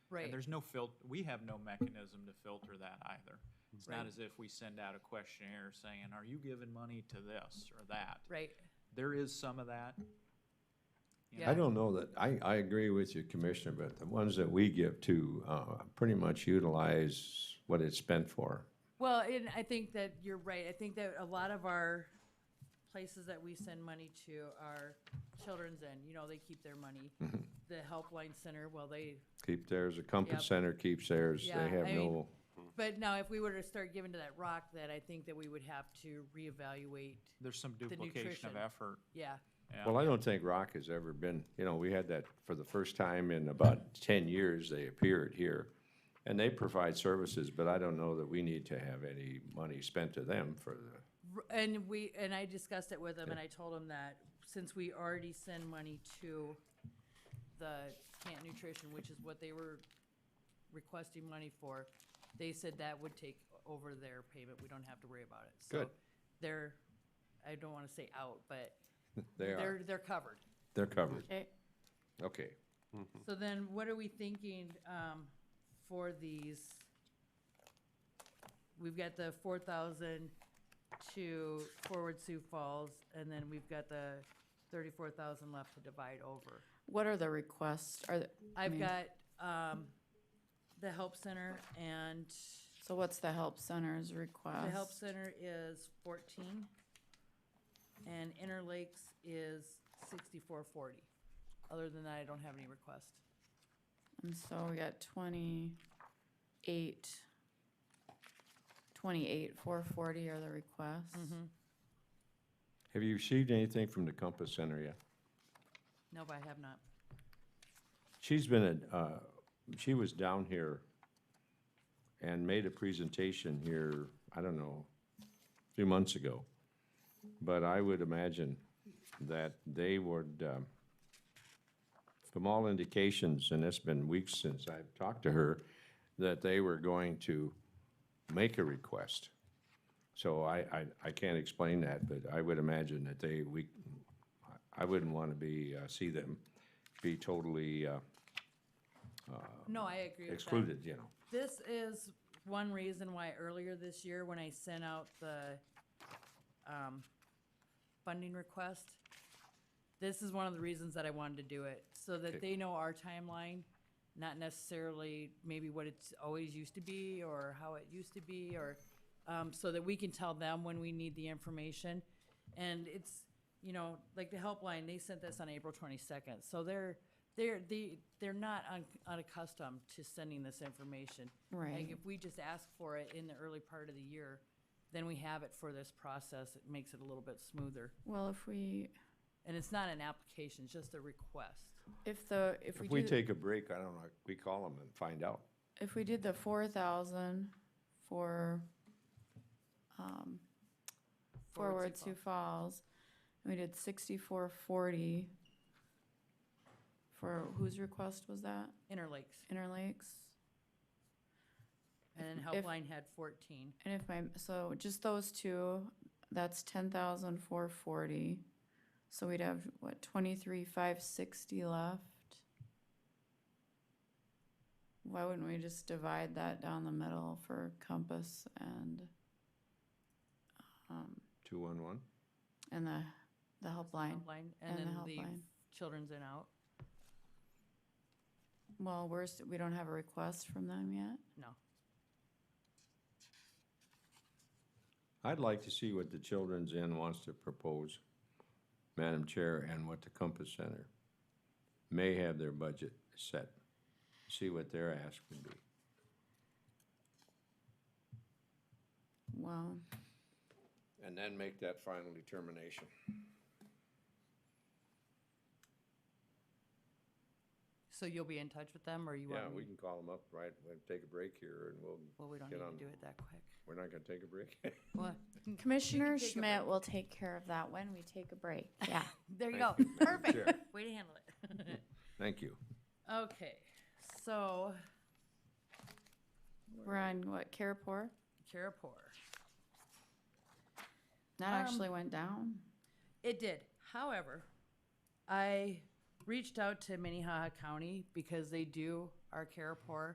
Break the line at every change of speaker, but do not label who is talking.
Right.
And there's no fil, we have no mechanism to filter that either. It's
Right.
not as if we send out a questionnaire saying, are you giving money to this or that?
Right,
There is some of that. you
Yeah.
know,
I don't know that, I, I agree with you, Commissioner, but the ones that we give to, uh, pretty much utilize what it's spent for.
well, and I think that you're right, I think that a lot of our places that we send money to are children's and, you know, they keep their money.
Mm-hmm.
The helpline center, well, they,
Keep theirs, the Compass
Yep.
Center keeps theirs,
Yeah,
they have
I mean-
no,
but now if we were to start giving to that rock, that I think that we would have to reevaluate,
There's some duplication
nutrition.
of effort.
yeah,
yeah.
well, I don't think Rock has ever been, you know, we had that for the first time in about ten years, they appeared here. And they provide services, but I don't know that we need to have any money spent to them for the,
R- And we, and I discussed it with him, and I told him that since we already send money to the Camp Nutrition, which is what they were requesting money for, they said that would take over their payment, we don't have to worry about it. So
Good.
They're, I don't wanna say out, but
they
they're,
are,
they're covered.
they're covered,
Okay.
okay.
So then what are we thinking, um, for these? We've got the four thousand to Forward Sioux Falls, and then we've got the thirty-four thousand left to divide over.
What are the requests? Are, th-
I've
mean-
got, um, the Help Center and
so what's the help center's request?
the Help Center is fourteen. And Interlakes is sixty-four forty. Other than that, I don't have any requests.
And so we got twenty-eight, twenty-eight, four forty are the requests.
Mm-hmm.
Have you received anything from the Compass Center yet?
Nope, I have not.
She's been at, uh, she was down here and made a presentation here, I don't know, a few months ago. But I would imagine that they would, um, from all indications, and it's been weeks since I've talked to her, that they were going to make a request. So I, I, I can't explain that, but I would imagine that they, we, I wouldn't want to be, uh, see them be totally, uh,
No, I agree with that.
excluded, you know.
This is one reason why earlier this year, when I sent out the um, funding request, this is one of the reasons that I wanted to do it, so
Okay.
that they know our timeline, not necessarily maybe what it's always used to be, or how it used to be, or, um, so that we can tell them when we need the information. And it's, you know, like the helpline, they sent this on April twenty-second, so they're, they're, they, they're not un- unaccustomed to sending this information. Like,
Right.
if we just ask for it in the early part of the year, then we have it for this process, it makes it a little bit smoother.
Well, if we,
And it's not an application, it's just a request.
if the, if we
If we
do-
take a break, I don't know, we call them and find out.
if we did the four thousand for, um, Forward Sioux Falls, and we did sixty-four forty for, whose request was that?
Interlakes,
Interlakes?
and then
if-
Helpline had fourteen.
And if my, so just those two, that's ten thousand four forty. So we'd have, what, twenty-three five sixty left? Why wouldn't we just divide that down the middle for Compass and, um,
Two one one?
and the, the helpline?
Helpline, and
and
then
the
leave
helpline.
Children's in out,
Well, we're, s- we don't have a request from them yet.
no.
I'd like to see what the Children's Inn wants to propose, Madam Chair, and what the Compass Center may have their budget set. See what their ask would be.
Well,
And then make that final determination.
So you'll be in touch with them, or you want?
Yeah,
me-
we can call them up, right, we'll take a break here and we'll,
Well, we don't need
get on-
to do it that quick.
we're not gonna take a break.
Well,
Commissioner
take a
Schmidt will take care of that when we take a break. Yeah.
there you go,
Thank you, Madam
perfect,
Chair.
way to handle it.
Thank you.
Okay, so,
we're on what, Carrefour?
Carapore.
That
Um,
actually went down.
It did. However, I reached out to Minnehaha County because they do our CARE poor